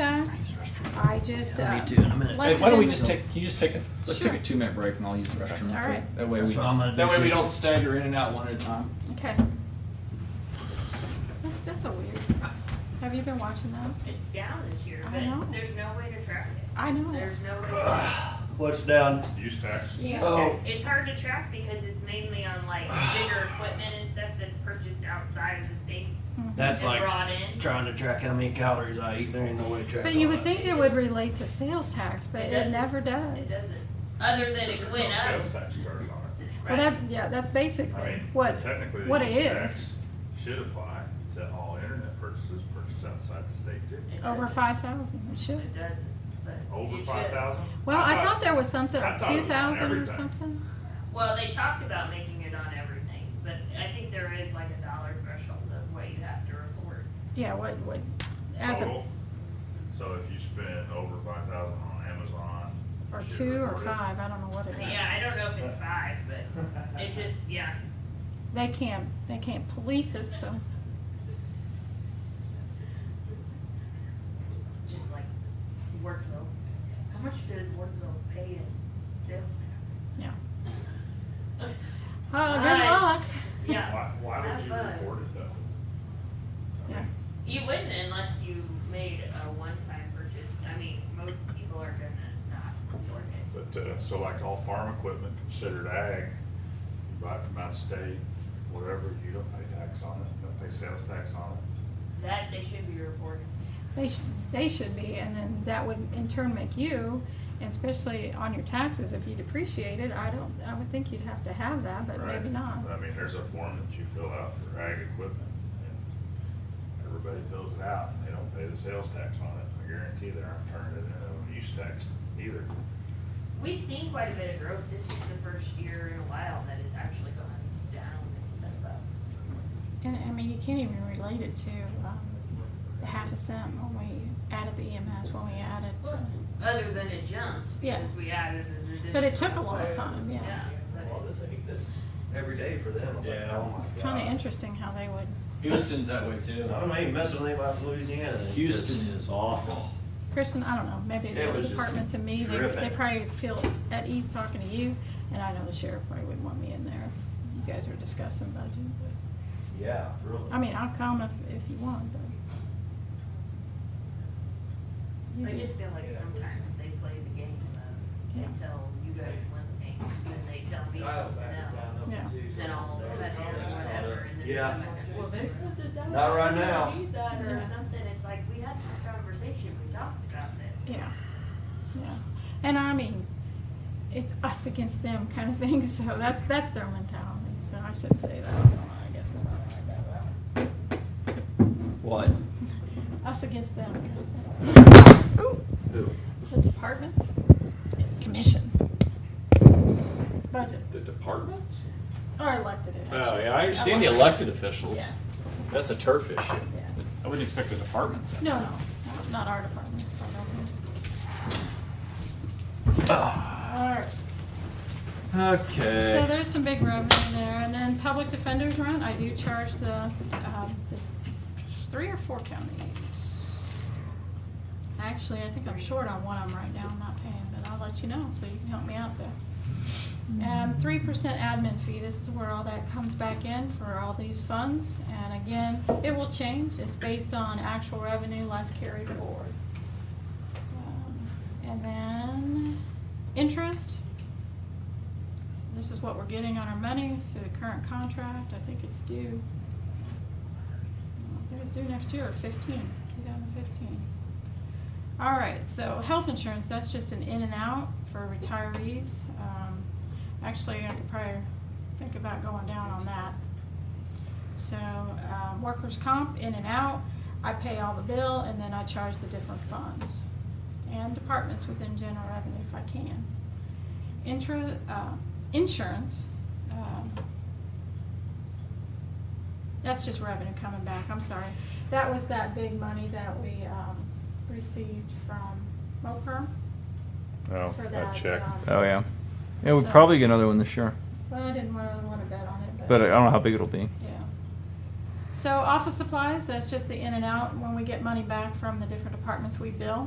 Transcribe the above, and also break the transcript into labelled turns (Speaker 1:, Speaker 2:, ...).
Speaker 1: tax. I just, uh,
Speaker 2: Me too, in a minute.
Speaker 1: Like
Speaker 3: Hey,
Speaker 1: to
Speaker 3: why don't we
Speaker 1: do-
Speaker 3: just take, can you just take a, let's take a two minute break and I'll use the restroom. real
Speaker 1: All
Speaker 3: quick.
Speaker 1: right.
Speaker 3: That way we,
Speaker 2: That's what I'm gonna do
Speaker 3: that way we
Speaker 2: too.
Speaker 3: don't stagger in and out one at a time.
Speaker 1: okay. That's, that's a weird. Have you been watching that?
Speaker 4: It's down this year,
Speaker 1: I know. Oh.
Speaker 4: but there's no way to track it.
Speaker 1: I know.
Speaker 4: There's no
Speaker 5: Oh.
Speaker 4: way. to
Speaker 2: What's down?
Speaker 5: Use tax.
Speaker 1: Yeah.
Speaker 2: Oh.
Speaker 4: It's hard to track because it's mainly on like bigger equipment and stuff that's purchased outside of the state.
Speaker 2: That's
Speaker 4: and
Speaker 2: like
Speaker 4: Brought in.
Speaker 2: trying to track how many calories I eat. There ain't no way to track.
Speaker 1: But
Speaker 2: all
Speaker 1: you would
Speaker 2: that.
Speaker 1: think it would relate to sales tax, but
Speaker 4: It
Speaker 1: it
Speaker 4: doesn't.
Speaker 1: never
Speaker 4: It
Speaker 1: does.
Speaker 4: doesn't, other than
Speaker 5: There's
Speaker 4: it
Speaker 5: no
Speaker 4: went up.
Speaker 5: Sales tax charge on it.
Speaker 1: Well,
Speaker 4: right?
Speaker 1: that, yeah, that's
Speaker 5: I
Speaker 1: basically
Speaker 5: mean,
Speaker 1: what,
Speaker 5: technically, the
Speaker 1: what it
Speaker 5: use
Speaker 1: is.
Speaker 5: tax Should apply to all internet purchases purchased outside the state too.
Speaker 4: It
Speaker 1: Over
Speaker 4: doesn't.
Speaker 1: five thousand, it should.
Speaker 4: It doesn't, but.
Speaker 5: Over
Speaker 4: it should.
Speaker 5: five thousand?
Speaker 1: Well, I thought there was something,
Speaker 5: I thought it
Speaker 1: two
Speaker 5: was on
Speaker 1: thousand or
Speaker 5: everything.
Speaker 1: something.
Speaker 4: Well, they talked about making it on everything, but I think there is like a dollar threshold of what you have to report.
Speaker 1: Yeah, what, what, as a,
Speaker 5: Total. So if you spend over five thousand on Amazon.
Speaker 1: or
Speaker 5: you should
Speaker 1: two or
Speaker 5: report it.
Speaker 1: five, I don't know what it is.
Speaker 4: Yeah, I don't know if it's five, but it just, yeah.
Speaker 1: They can't, they can't police it, so.
Speaker 4: just like Worthville. How much does Worthville pay in sales tax?
Speaker 1: Oh, good
Speaker 4: Right.
Speaker 1: luck.
Speaker 4: Yeah,
Speaker 5: Why, why would
Speaker 4: Have
Speaker 5: you
Speaker 4: fun.
Speaker 5: report it though? I
Speaker 1: Yeah.
Speaker 5: mean,
Speaker 4: you wouldn't unless you made a one-time purchase. I mean, most people are gonna not report it.
Speaker 5: But, uh, so like all farm equipment considered ag, you buy it from out of state, whatever, you don't pay tax on it, you don't pay sales tax on it.
Speaker 4: That they should be reporting.
Speaker 1: They should, they should be, and then that would in turn make you, and especially on your taxes, if you depreciate it, I don't, I would think you'd have to have that, but
Speaker 5: right?
Speaker 1: maybe not.
Speaker 5: But I mean, there's a form that you fill out for ag equipment and everybody fills it out and they don't pay the sales tax on it. I guarantee they aren't turning it into a use tax either.
Speaker 4: We've seen quite a bit of growth. This is the first year in a while that it's actually gone down instead of up.
Speaker 1: And, I mean, you can't even relate it to, um, the half a cent when we added the EMS, when we added, uh,
Speaker 4: Other than it jumped.
Speaker 1: Yeah.
Speaker 4: Because we added an additional.
Speaker 1: but it took a long time, yeah.
Speaker 4: Yeah, but
Speaker 6: Well, this, I mean, this is every day for them.
Speaker 2: Yeah, oh my
Speaker 1: It's
Speaker 2: God.
Speaker 1: kinda interesting how they would,
Speaker 3: Houston's that way too.
Speaker 6: I'm not even messing with anybody from Louisiana. It's
Speaker 3: Houston
Speaker 6: just
Speaker 3: is
Speaker 6: awful.
Speaker 1: Kristen, I don't know, maybe
Speaker 6: It
Speaker 1: the
Speaker 6: was just
Speaker 1: departments and me, they, they
Speaker 6: dripping.
Speaker 1: probably feel at ease talking to you, and I know the sheriff probably wouldn't want me in there. if You guys were discussing budget, but,
Speaker 6: Yeah, really.
Speaker 1: I mean, I'll come if, if you want, but. You
Speaker 4: I
Speaker 1: do.
Speaker 4: just feel like sometimes they play the game of, they tell you guys one thing, then they tell me something else.
Speaker 1: Yeah.
Speaker 4: Then all of a sudden, or whatever, and then.
Speaker 6: Yeah.
Speaker 4: Well, they put this out.
Speaker 6: Not right
Speaker 4: you don't
Speaker 6: now.
Speaker 4: Need that or
Speaker 1: Yeah.
Speaker 4: something, it's like, we had this conversation, we talked about this.
Speaker 1: Yeah, yeah, and I mean, it's us against them kind of thing, so that's, that's their mentality, so I shouldn't say that, I guess we're not like that, but
Speaker 3: What?
Speaker 1: us against them. kind of thing. Ooh.
Speaker 3: Who?
Speaker 1: The departments, commission, budget,
Speaker 3: The departments?
Speaker 1: or elected officials.
Speaker 3: Oh, yeah, I understand the elected officials.
Speaker 1: Yeah.
Speaker 3: That's a turf issue.
Speaker 1: Yeah.
Speaker 3: I wouldn't expect the departments.
Speaker 1: No, no, not our department, I don't think. All right. So
Speaker 3: Ah, Okay.
Speaker 1: there's some big revenue there, and then public defender's rent, I do charge the, um, the three or four counties. Actually, I think I'm short on one of them right now, I'm not paying, but I'll let you know, so you can help me out there. Um, three percent admin fee, this is where all that comes back in for all these funds, and again, it will change, it's based on actual revenue less carry forward. Um, And then, interest, this is what we're getting on our money for the current contract, I think it's due. I think it's due next year, fifteen, two thousand fifteen. All right, so health insurance, that's just an in and out for retirees. Um, Actually, I could probably think about going down on that. So, um, workers' comp, in and out, I pay all the bill and then I charge the different funds. And departments within general revenue if I can. Intra, uh, insurance, um, that's just revenue coming back, I'm sorry. That was that big money that we, um, received from MOPR.
Speaker 5: No,
Speaker 1: For that, um,
Speaker 7: Oh yeah, yeah. We'll
Speaker 1: So-
Speaker 7: probably uh, get another one this year,
Speaker 1: Well, I didn't really wanna bet on it,
Speaker 7: but I don't know how big it'll be.
Speaker 1: Yeah. So office supplies, that's just the in and out, when we get money back from the different departments we bill.